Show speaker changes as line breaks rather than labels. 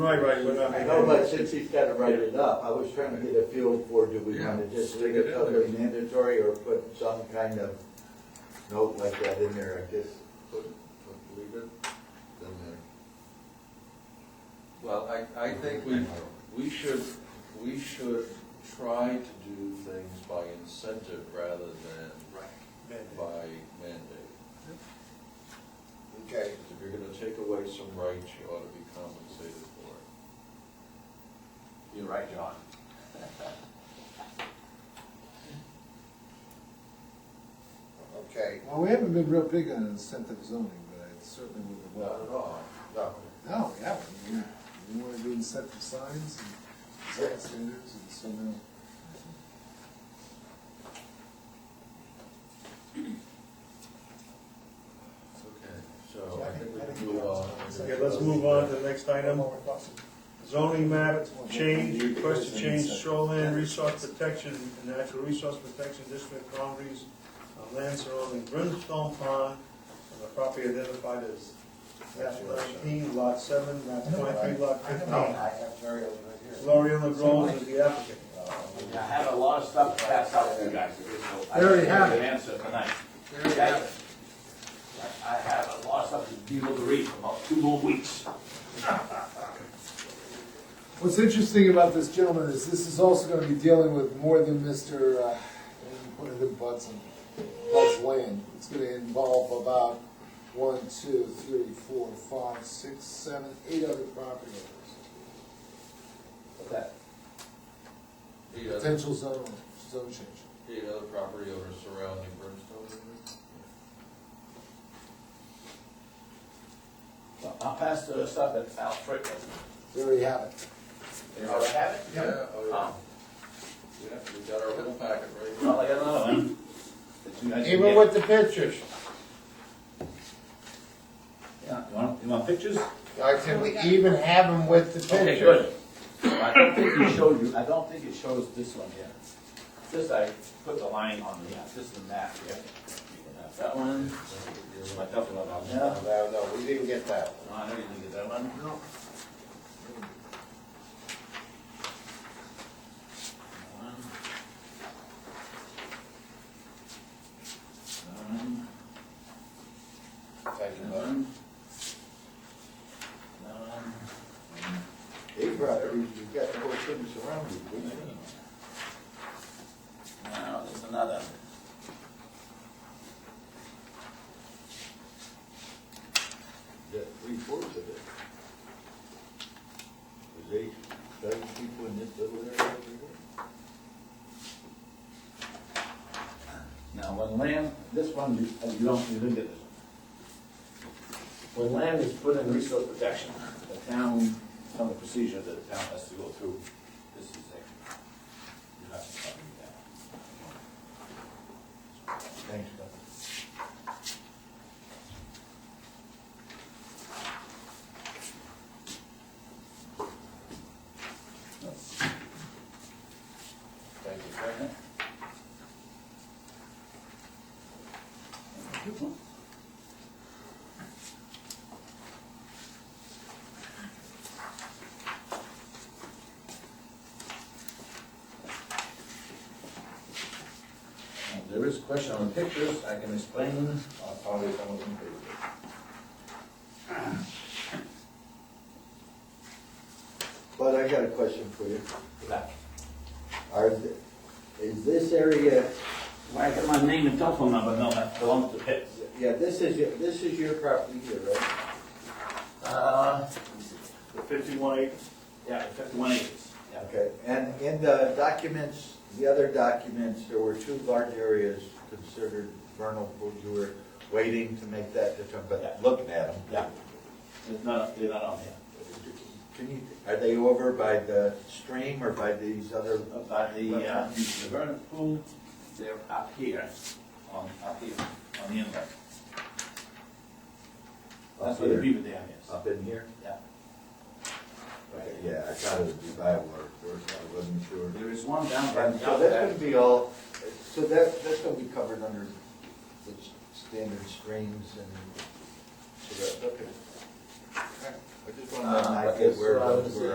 Right, right, we're not.
I know, but since he's got to write it up, I was trying to get a feel for, do we want to just leave it under mandatory or put some kind of note like that in there, I guess? Put, put, leave it in there.
Well, I, I think we, we should, we should try to do things by incentive rather than by mandate.
Okay,
Because if you're gonna take away some rights, you ought to be compensated for it.
you're right, John. Okay,
Well, we haven't been real big on incentive zoning, but I certainly would
Not at
welcome.
all.
no,
No, we haven't. We- We want to do incentive signs and design standards and so now.
Okay, so I think we can move on.
Okay, let's move on to the next item. Zoning map change, request to change shoreline resource protection and natural resource protection district boundaries of land surrounding Brimstone Pond and the property identified as map nineteen, lot seven, map twenty-three, lot fifteen.
I have Terry over here.
Gloriella Groves is the applicant.
I had a lot of stuff to pass out to you guys, so I
There you
didn't
have
have
it.
an answer tonight.
There you have it.
I- I have a lot of stuff to be able to read for about two more weeks.
What's interesting about this gentleman is this is also going to be dealing with more than Mr. uh, One of the butts and butts land. It's going to involve about one, two, three, four, five, six, seven, eight other property owners.
What's that?
Eight other,
Potential zone, zone change.
eight other property owners surrounding Brimstone. isn't
Well, I'll pass the stuff that's out quick.
There you have it.
You already have it?
it? Yeah,
Oh,
Um,
oh, yeah, yeah, we got our whole packet right here.
well, I got another one. that you guys can
Even
get.
with the pictures,
Yeah, you want, you want pictures?
I can even have them with the
Okay,
pictures.
good. I don't think it showed you, I don't think it shows this one here. This, I put the line on the, this is the map here. You can have That one, my duffel bag on there.
No, no, we didn't get that one.
No, I know you didn't get that one. No. One.
Thank you,
That
bud.
one. That one.
They brought every, you've got the whole thing surrounded, didn't you?
Now, there's another.
That three fourths of it. There's eight, seven people in this little area over here.
Now, when land, this one, you uh, you don't, you didn't get this one. When land is put in resource protection, the town, some of the procedure that the town has to go through, this is a, you have to copy that.
Thanks, Doc.
Thank you, President. Now, There is question on the pictures, I can explain, I'll probably come up with it.
But I got a question for you.
Yeah.
Are, th- is this area,
Why, I got my name and telephone number, no, that belongs to Pitt.
yeah, this is, your- this is your property here, right?
Uh, the fifty-one acres? Yeah, the fifty-one acres. Yeah.
Okay, and in the documents, the other documents, there were two large areas considered vernal pools. You were waiting to make that determination,
Yeah.
but looking at them.
Yeah. It's not, they're not on here.
Can you, are they over by the stream or by these other?
But the, uh, the vernal pool, they're up here, on, up here, on the inlet. That's where the
Up here?
beaver dam is.
Up in here?
Yeah.
Okay, Yeah, I thought it would be by water, first, I wasn't sure.
There is one down by
And
the
so that's
outlet.
gonna be all, so that, that's gonna be covered under the s- standard streams and, so that, okay. I just want to know
Uh,
an
but
idea
it's,
where,
uh,
where